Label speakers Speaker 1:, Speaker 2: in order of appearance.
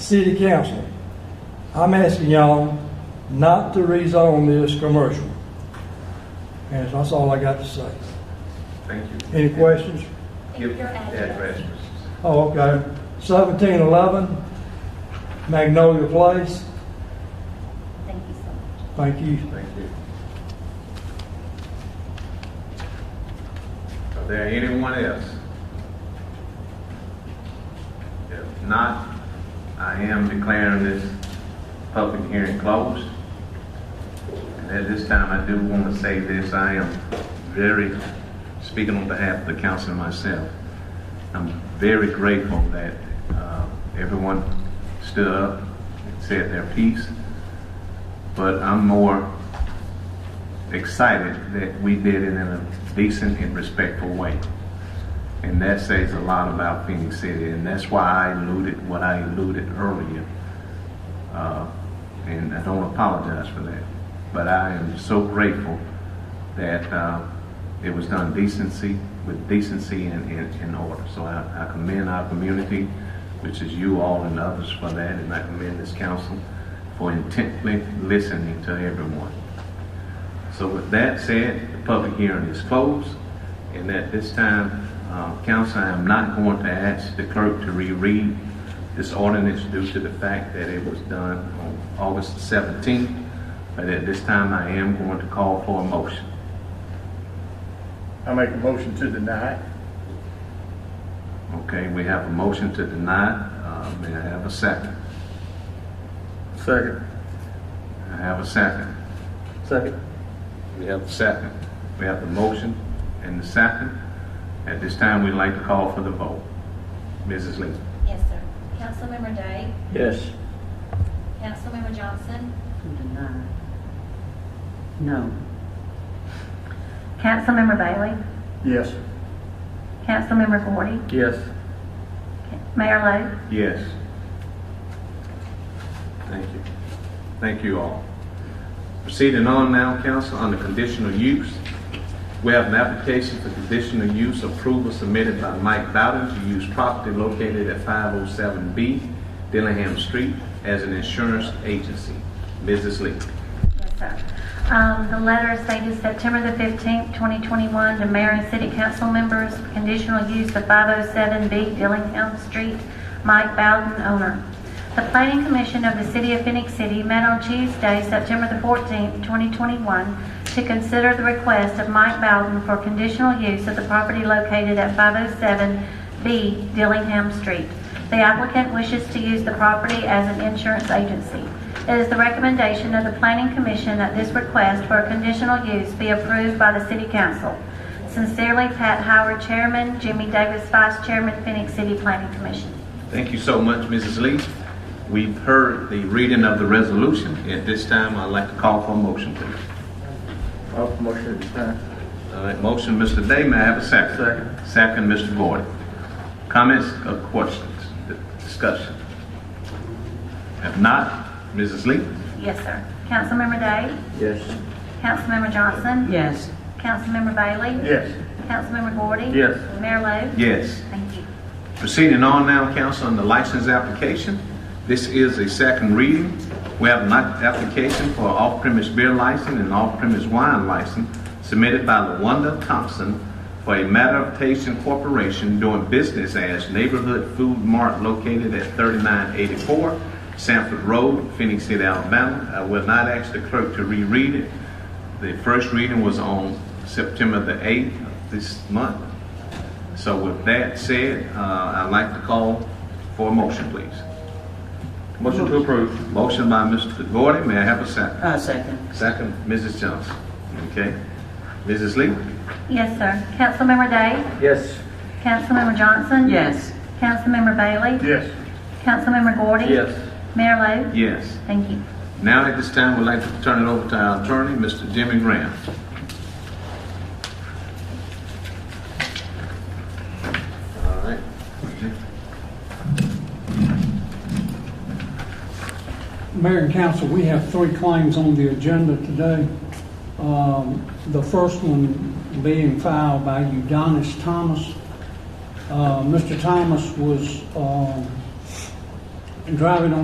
Speaker 1: city council, I'm asking y'all not to rezone this commercial. And that's all I got to say.
Speaker 2: Thank you.
Speaker 1: Any questions?
Speaker 2: Give
Speaker 3: Your
Speaker 2: the
Speaker 3: address.
Speaker 2: address.
Speaker 1: Oh, okay. Seventeen eleven Magnolia Place.
Speaker 3: Thank you so much.
Speaker 1: Thank you.
Speaker 2: Thank you. Are there anyone else? If not, I am declaring this public hearing closed. And at this time, I do want to say this, I am very, speaking on behalf of the council and myself, I'm very grateful that uh, everyone stood up and said their piece, but I'm more excited that we did it in a decent and respectful way. And that says a lot about Phoenix City, and that's why I alluded what I alluded earlier. Uh, and I don't apologize for that. But I am so grateful that uh, it was done decency, with decency and, and, and order. So I, I commend our community, which is you all and others for that, and I commend this council for intently listening to everyone. So with that said, the public hearing is closed, and at this time, uh, council, I am not going to ask the clerk to reread this ordinance due to the fact that it was done on August 17th, but at this time, I am going to call for a motion.
Speaker 4: I make a motion to deny.
Speaker 2: Okay, we have a motion to deny. Uh, May I have a second?
Speaker 4: Second.
Speaker 2: I have a second.
Speaker 4: Second.
Speaker 2: We have a second. We have the motion and the second. At this time, we'd like to call for the vote. Mrs. Lee?
Speaker 3: Yes, sir. Councilmember Day,
Speaker 4: Yes.
Speaker 3: Councilmember Johnson,
Speaker 5: To deny. No.
Speaker 3: Councilmember Bailey,
Speaker 4: Yes.
Speaker 3: Councilmember Gordy,
Speaker 4: Yes.
Speaker 3: Mayor
Speaker 2: Yes. Thank you. Thank you all. Proceeding on now, council, under conditional use. We have an application for conditional use approval submitted by Mike Bowden to use property located at 507B Dillingham Street as an insurance agency. Mrs. Lee.
Speaker 6: Yes, sir. Um, The letter stated September the 15th, 2021, to mayor and city council members, conditional use of 507B Dillingham Street, Mike Bowden, owner. The planning commission of the city of Phoenix City met on Tuesday, September the 14th, 2021, to consider the request of Mike Bowden for conditional use of the property located at 507B Dillingham Street. The applicant wishes to use the property as an insurance agency. It is the recommendation of the Planning Commission that this request for a conditional use be approved by the City Council. Sincerely, Pat Howard, Chairman, Jimmy Davis, Vice Chairman, Phoenix City Planning Commission.
Speaker 2: Thank you so much, Mrs. Lee. We've heard the reading of the resolution. At this time, I'd like to call for a motion, please.
Speaker 4: I'll Oh, motion to deny.
Speaker 2: All right, motion, Mr. Day, may I have a second?
Speaker 4: Second.
Speaker 2: Second, Mr. Gordon. Comments or questions, discussion? If not, Mrs. Lee?
Speaker 6: Yes, sir. Councilmember Day?
Speaker 4: Yes.
Speaker 6: Councilmember Johnson?
Speaker 5: Yes.
Speaker 6: Councilmember Bailey?
Speaker 4: Yes.
Speaker 6: Councilmember Gordy?
Speaker 4: Yes.
Speaker 6: Mayor Lo?
Speaker 2: Yes.
Speaker 6: Thank you.
Speaker 2: Proceeding on now, council, on the license application. This is a second reading. We have an application for off-premise beer license and off-premise wine license submitted by LaWanda Thompson for a matter of Meditation Corporation doing business as Neighborhood Food Mart located at 3984 Sanford Road, Phoenix City, Alabama. I will not ask the clerk to reread it. The first reading was on September the 8th of this month. So with that said, uh, I'd like to call for a motion, please. Motion to approve. Motion by Mr. Gordon, may I have a second?
Speaker 5: Uh, second.
Speaker 2: Second, Mrs. Johnson. Okay. Mrs. Lee?
Speaker 6: Yes, sir. Councilmember Day?
Speaker 4: Yes.
Speaker 6: Councilmember Johnson?
Speaker 5: Yes.
Speaker 6: Councilmember Bailey?
Speaker 4: Yes.
Speaker 6: Councilmember Gordy? Mayor Lo?
Speaker 2: Yes.
Speaker 6: Thank you.
Speaker 2: Now, at this time, we'd like to turn it over to our attorney, Mr. Jimmy Graham. All right.
Speaker 7: Mayor and council, we have three claims on the agenda today. Um, The first one being filed by Udonis Thomas. Uh, Mr. Thomas was um, driving on